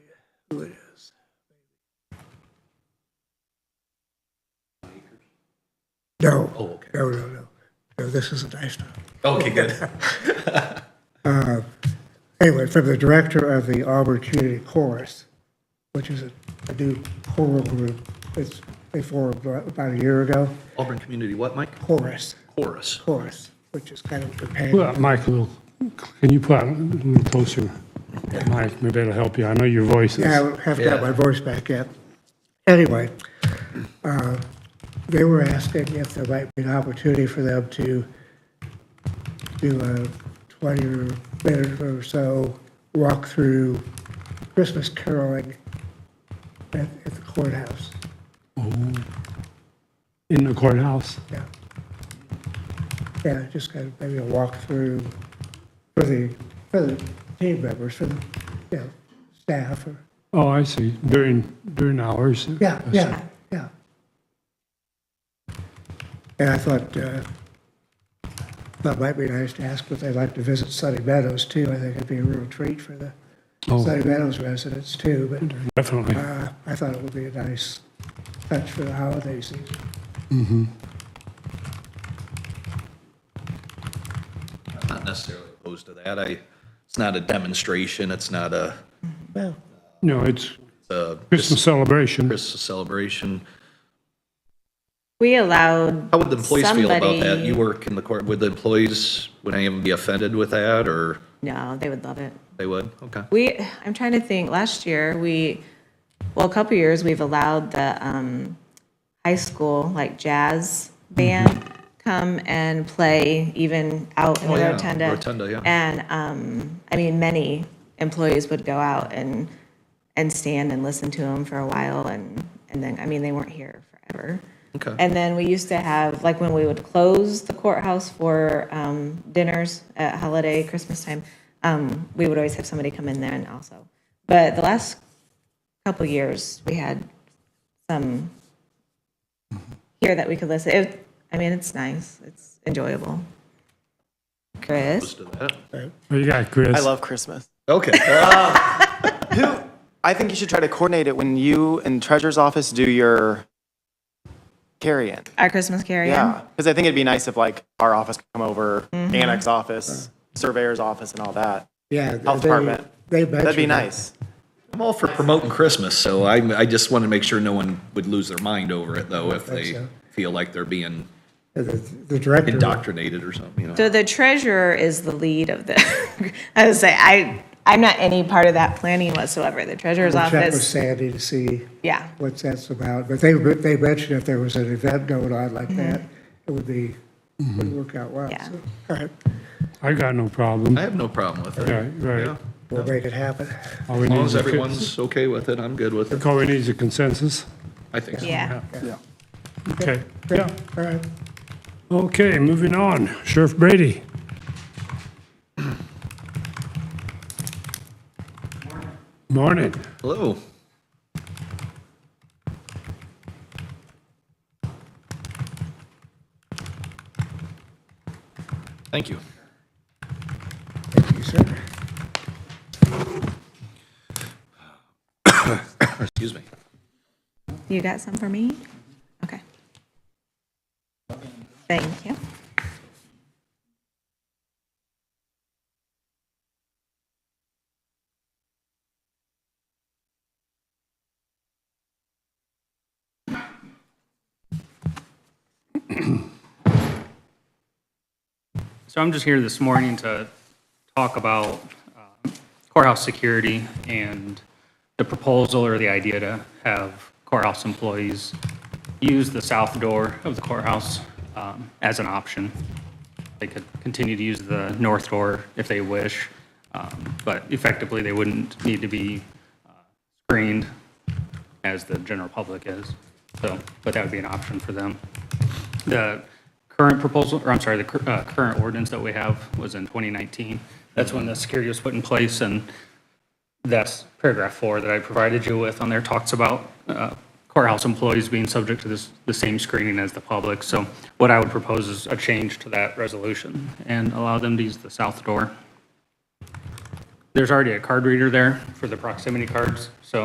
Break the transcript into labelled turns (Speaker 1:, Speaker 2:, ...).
Speaker 1: who it is. No.
Speaker 2: Oh, okay.
Speaker 1: No, no, no. No, this isn't ISTOP.
Speaker 2: Okay, good.
Speaker 1: Anyway, from the director of the Auburn Community Chorus, which is a a new choral group. It's, they formed about a year ago.
Speaker 2: Auburn Community what, Mike?
Speaker 1: Chorus,
Speaker 2: Chorus.
Speaker 1: chorus, which is kind of a companion.
Speaker 3: Well, Michael, can you put a little closer? Mike, maybe it'll help you. I know your voice is.
Speaker 1: Yeah, I haven't got
Speaker 2: Yeah.
Speaker 1: my voice back yet. Anyway, uh, they were asking if there might be an opportunity for them to do a 20 or minute or so walk-through Christmas caroling at at the courthouse.
Speaker 3: In the courthouse.
Speaker 1: Yeah. Yeah, just kind of maybe a walkthrough for the, for the team members, for the, you know, staff or,
Speaker 3: Oh, I see. During, during hours.
Speaker 1: yeah, yeah, yeah. And I thought, uh, that might be nice to ask, but they'd like to visit Sunny Meadows too. I think it'd be a real treat for the
Speaker 3: Oh,
Speaker 1: Sunny Meadows residents too, but,
Speaker 3: definitely.
Speaker 1: uh, I thought it would be a nice touch for the holiday season.
Speaker 2: I'm Not necessarily opposed to that. I, it's not a demonstration, it's not a,
Speaker 1: Well,
Speaker 3: No,
Speaker 2: Uh,
Speaker 3: it's
Speaker 2: a
Speaker 3: Christmas celebration.
Speaker 2: Christmas celebration.
Speaker 4: We allowed.
Speaker 2: How would the employees feel about that?
Speaker 4: somebody-
Speaker 2: You work in the court, would the employees, would any of them be offended with that, or
Speaker 4: No, they would love it.
Speaker 2: they would? Okay.
Speaker 4: We, I'm trying to think, last year, we, well, a couple years, we've allowed the um, high school, like jazz band, come and play even out in
Speaker 2: Mm-hmm. Oh,
Speaker 4: the
Speaker 2: yeah,
Speaker 4: rotunda.
Speaker 2: rotunda, yeah.
Speaker 4: And, um, I mean, many employees would go out and, and stand and listen to them for a while, and, and then, I mean, they weren't here forever.
Speaker 2: Okay.
Speaker 4: And then we used to have, like, when we would close the courthouse for um, dinners at holiday, Christmas time, um, we would always have somebody come in then also. But the last couple years, we had some here that we could listen. It, I mean, it's nice. It's enjoyable. Chris,
Speaker 2: Opposed to that?
Speaker 3: What Oh, you got, Chris?
Speaker 5: I love Christmas.
Speaker 2: Okay.
Speaker 5: I think you should try to coordinate it when you and Treasurer's Office do your carry-in.
Speaker 4: our Christmas carry.
Speaker 5: Yeah, because I think it'd be nice if like our office could come over, annex office, surveyor's office and all that.
Speaker 1: yeah.
Speaker 5: Health
Speaker 1: they-
Speaker 5: department.
Speaker 1: They
Speaker 5: That'd
Speaker 1: mentioned
Speaker 5: be
Speaker 1: it.
Speaker 5: nice.
Speaker 2: I'm all for promoting Christmas, so I, I just wanted to make sure no one would lose their mind over it, though, if they
Speaker 1: so.
Speaker 2: feel like they're being
Speaker 1: The- The director.
Speaker 2: indoctrinated or something, you know?
Speaker 4: So the treasurer is the lead of the, I would say, I, I'm not any part of that planning whatsoever. The treasurer's
Speaker 1: We'll Check with
Speaker 4: office,
Speaker 1: Sandy to see
Speaker 4: yeah.
Speaker 1: what that's about, but they, they mentioned if there was an event going on like that, it would be, would work out well.
Speaker 4: Mm-hmm. Yeah.
Speaker 1: So, All right,
Speaker 3: I got no
Speaker 2: I
Speaker 3: problem.
Speaker 2: have no problem with it.
Speaker 3: Right, right.
Speaker 2: Yeah.
Speaker 1: we'll make it happen.
Speaker 3: All we
Speaker 2: As
Speaker 3: need
Speaker 2: long
Speaker 3: is
Speaker 2: as
Speaker 3: a-
Speaker 2: everyone's okay with it, I'm good with it.
Speaker 3: All we need is a consensus.
Speaker 2: I think so.
Speaker 4: Yeah.
Speaker 3: Okay, yeah.
Speaker 1: All right.
Speaker 3: Okay, moving on. Sheriff Brady. Morning.
Speaker 2: Hello. Thank you.
Speaker 1: Thank you, sir.
Speaker 2: Excuse me.
Speaker 4: You got some for me? Okay. Thank you.
Speaker 6: So I'm just here this morning to talk about um, courthouse security and the proposal or the idea to have courthouse employees use the south door of the courthouse um, as an option. They could continue to use the north door if they wish, um, but effectively, they wouldn't need to be uh, screened as the general public is. So, but that would be an option for them. The current proposal, or I'm sorry, the cur- uh, current ordinance that we have was in 2019. That's when the security was put in place, and that's paragraph four that I provided you with on there talks about uh, courthouse employees being subject to this, the same screening as the public. So what I would propose is a change to that resolution and allow them to use the south door. There's already a card reader there for the proximity cards, so